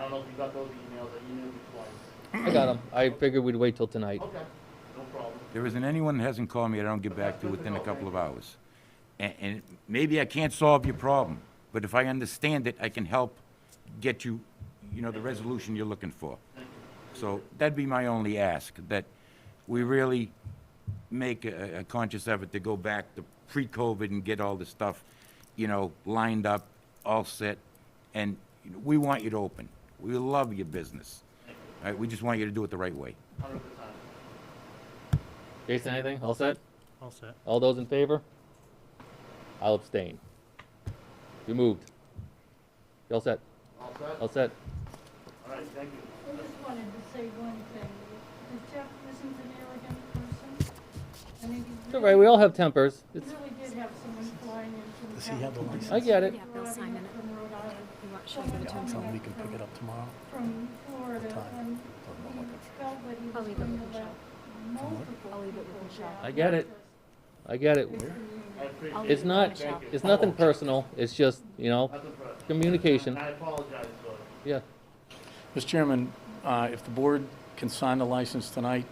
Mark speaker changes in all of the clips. Speaker 1: don't know if you got those emails, I emailed you twice.
Speaker 2: I got them. I figured we'd wait till tonight.
Speaker 1: Okay, no problem.
Speaker 3: There isn't anyone that hasn't called me that I don't get back to within a couple of hours. And, and maybe I can't solve your problem, but if I understand it, I can help get you, you know, the resolution you're looking for. So that'd be my only ask, that we really make a, a conscious effort to go back to pre-COVID and get all the stuff, you know, lined up, all set. And you know, we want you to open. We love your business. All right, we just want you to do it the right way.
Speaker 1: Hundred percent.
Speaker 2: Jason, anything? All set?
Speaker 4: All set.
Speaker 2: All those in favor? I'll abstain. You moved. You all set?
Speaker 1: All set?
Speaker 2: All set?
Speaker 1: All right, thank you.
Speaker 5: I just wanted to say one thing. Jeff isn't an arrogant person. I mean,
Speaker 2: It's
Speaker 5: he
Speaker 2: all right. We
Speaker 5: really,
Speaker 2: all have tempers. It's
Speaker 5: really did have someone flying in from.
Speaker 4: Does he have the
Speaker 5: California,
Speaker 4: license?
Speaker 2: I get it.
Speaker 6: Yeah, Bill
Speaker 5: driving
Speaker 6: Simon.
Speaker 5: up From Rhode Island,
Speaker 6: You want, should I give it to him?
Speaker 5: Someone
Speaker 4: Tell him we can pick it up tomorrow.
Speaker 5: from Florida,
Speaker 4: Time.
Speaker 5: and
Speaker 4: I'm
Speaker 5: he
Speaker 4: looking
Speaker 5: felt that he
Speaker 6: I'll
Speaker 5: was
Speaker 6: leave it
Speaker 5: going
Speaker 6: with
Speaker 5: to let
Speaker 6: Michelle.
Speaker 5: multiple
Speaker 6: I'll leave it with
Speaker 5: people
Speaker 6: Michelle.
Speaker 5: down,
Speaker 2: I get
Speaker 5: not
Speaker 2: it.
Speaker 5: just
Speaker 2: I get it.
Speaker 1: I
Speaker 5: his community.
Speaker 1: appreciate
Speaker 6: I'll
Speaker 1: it.
Speaker 6: leave
Speaker 2: It's
Speaker 6: it
Speaker 2: not-
Speaker 6: with Michelle.
Speaker 1: Thank you.
Speaker 2: It's nothing personal. It's just, you know,
Speaker 1: That's impressive. And
Speaker 2: communication.
Speaker 1: I apologize for it.
Speaker 2: Yeah.
Speaker 4: Mr. Chairman, uh, if the board can sign the license tonight,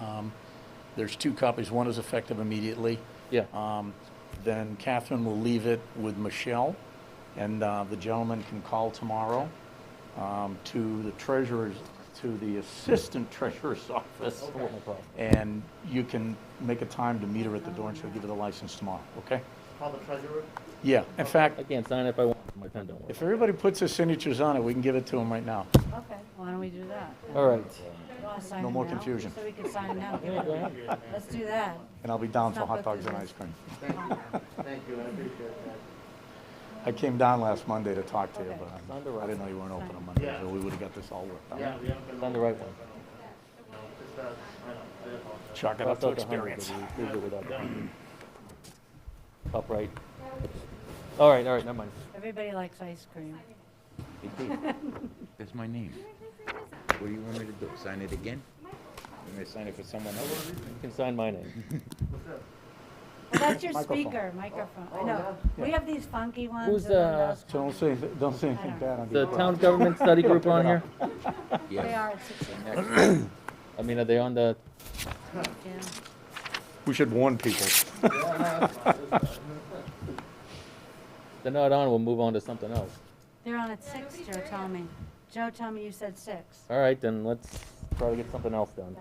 Speaker 4: um, there's two copies. One is effective immediately.
Speaker 2: Yeah.
Speaker 4: Um, Then Catherine will leave it with Michelle, and uh, the gentleman can call tomorrow um, to the treasurer's, to the assistant treasurer's office.
Speaker 2: No problem.
Speaker 4: And you can make a time to meet her at the door, and she'll give you the license tomorrow, okay?
Speaker 1: Call the treasurer.
Speaker 4: Yeah, in fact,
Speaker 2: I can't sign if I want. My pen don't work.
Speaker 4: if everybody puts their signatures on it, we can give it to them right now.
Speaker 7: Okay,
Speaker 6: Why don't we do that?
Speaker 2: All right.
Speaker 7: You wanna sign
Speaker 4: No
Speaker 7: it
Speaker 4: more
Speaker 7: now?
Speaker 4: confusion.
Speaker 7: So we can sign it now.
Speaker 2: Yeah, go ahead.
Speaker 7: Let's do that.
Speaker 4: And I'll be down
Speaker 7: It's
Speaker 4: for
Speaker 7: not
Speaker 4: hot
Speaker 7: good
Speaker 4: dogs and
Speaker 7: business.
Speaker 4: ice cream.
Speaker 1: Thank you, I appreciate that.
Speaker 4: I came down last Monday to talk to you,
Speaker 7: Okay.
Speaker 4: but
Speaker 2: Sign the
Speaker 4: I- I
Speaker 2: right.
Speaker 4: didn't know you weren't open on Monday,
Speaker 1: Yeah.
Speaker 4: so we would've got this all worked
Speaker 1: Yeah,
Speaker 4: out.
Speaker 1: we haven't been.
Speaker 2: On the right one.
Speaker 1: No, just that, I know, I apologize.
Speaker 4: Chalk it up to experience.
Speaker 2: Up right. All right, all right, never mind.
Speaker 7: Everybody likes ice cream.
Speaker 3: That's my name. What do you want me to do? Sign it again? You may sign it for someone else?
Speaker 2: You can sign my name.
Speaker 1: What's that?
Speaker 7: Well, that's your
Speaker 4: Microphone.
Speaker 7: speaker, microphone. I
Speaker 1: oh,
Speaker 7: know. We have these funky ones.
Speaker 2: Who's,
Speaker 7: and then
Speaker 2: uh,
Speaker 7: those-
Speaker 4: So don't say, don't say anything bad on
Speaker 2: The
Speaker 4: the.
Speaker 2: town government study group on here?
Speaker 7: They are at six,
Speaker 3: Next.
Speaker 2: I mean, are they on the,
Speaker 7: yeah.
Speaker 4: We should warn people.
Speaker 1: Yeah, no, that's fine, that's fine.
Speaker 2: if they're not on, we'll move on to something else.
Speaker 7: They're on at six, Joe told me. Joe told me you said six.
Speaker 2: All right, then let's try to get something else done.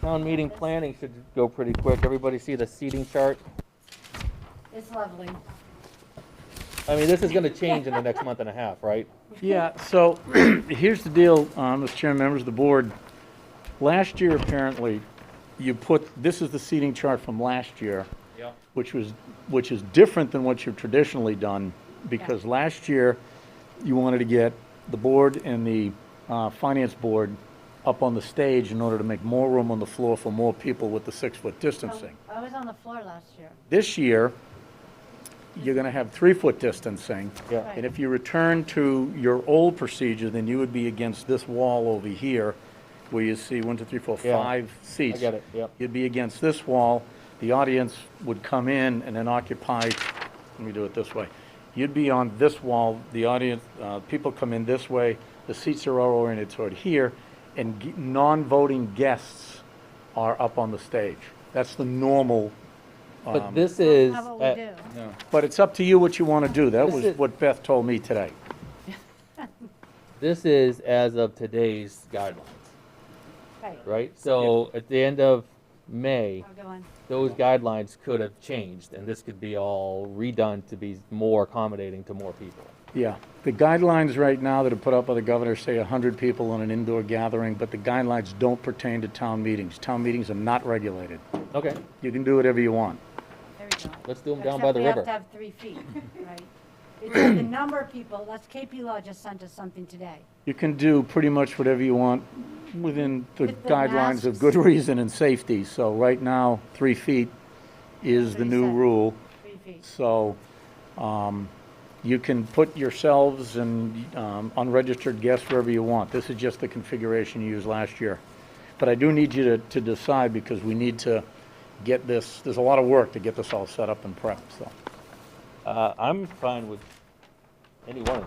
Speaker 2: Town meeting planning should go pretty quick. Everybody see the seating chart?
Speaker 7: It's lovely.
Speaker 2: I mean, this is gonna change in the next month and a half, right?
Speaker 4: Yeah, so here's the deal, uh, Mr. Chairman, members of the board. Last year, apparently, you put, this is the seating chart from last year,
Speaker 2: Yeah.
Speaker 4: which was, which is different than what you've traditionally done, because last year, you wanted to get the board and the uh, finance board up on the stage in order to make more room on the floor for more people with the six-foot distancing.
Speaker 7: I was on the floor last year.
Speaker 4: This year, you're going to have three-foot distancing.
Speaker 2: Yeah.
Speaker 4: And if you return to your old procedure, then you would be against this wall over here, where you see one, two, three, four,
Speaker 2: Yeah.
Speaker 4: five seats.
Speaker 2: get it, yep.
Speaker 4: You'd be against this wall, the audience would come in and then occupy, let me do it this way. You'd be on this wall, the audience, uh, people come in this way, the seats are all oriented toward here, and g- non-voting guests are up on the stage. That's the normal,
Speaker 2: But this is,
Speaker 7: How about
Speaker 2: uh,
Speaker 7: we do?
Speaker 4: but it's up to you what you want to do. That
Speaker 2: This
Speaker 4: was
Speaker 2: is-
Speaker 4: what Beth told me today.
Speaker 2: this is as of today's guidelines,
Speaker 7: Right,
Speaker 2: right? So at the end of May,
Speaker 7: I'll go on.
Speaker 2: those guidelines could have changed, and this could be all redone to be more accommodating to more people.
Speaker 4: Yeah, the guidelines right now that are put out by the governor say 100 people on an indoor gathering, but the guidelines don't pertain to town meetings. Town meetings are not regulated.
Speaker 2: Okay,
Speaker 4: You can do whatever you want.
Speaker 7: There we go.
Speaker 2: let's do them down by the
Speaker 7: Except we
Speaker 2: river.
Speaker 7: have to have three feet, right? Because the number of people, that's KP Law just sent us something today.
Speaker 4: You can do pretty much whatever you want within the
Speaker 7: With the
Speaker 4: guidelines of
Speaker 7: masks.
Speaker 4: good reason and safety. So right now, three feet is the
Speaker 7: Three
Speaker 4: new
Speaker 7: seconds.
Speaker 4: rule.
Speaker 7: Three feet.
Speaker 4: So um, you can put yourselves and um, unregistered guests wherever you want. This is just the configuration you used last year. But I do need you to to decide because we need to get this, there's a lot of work to get this all set up and prepped, so.
Speaker 2: Uh, I'm fine with any one of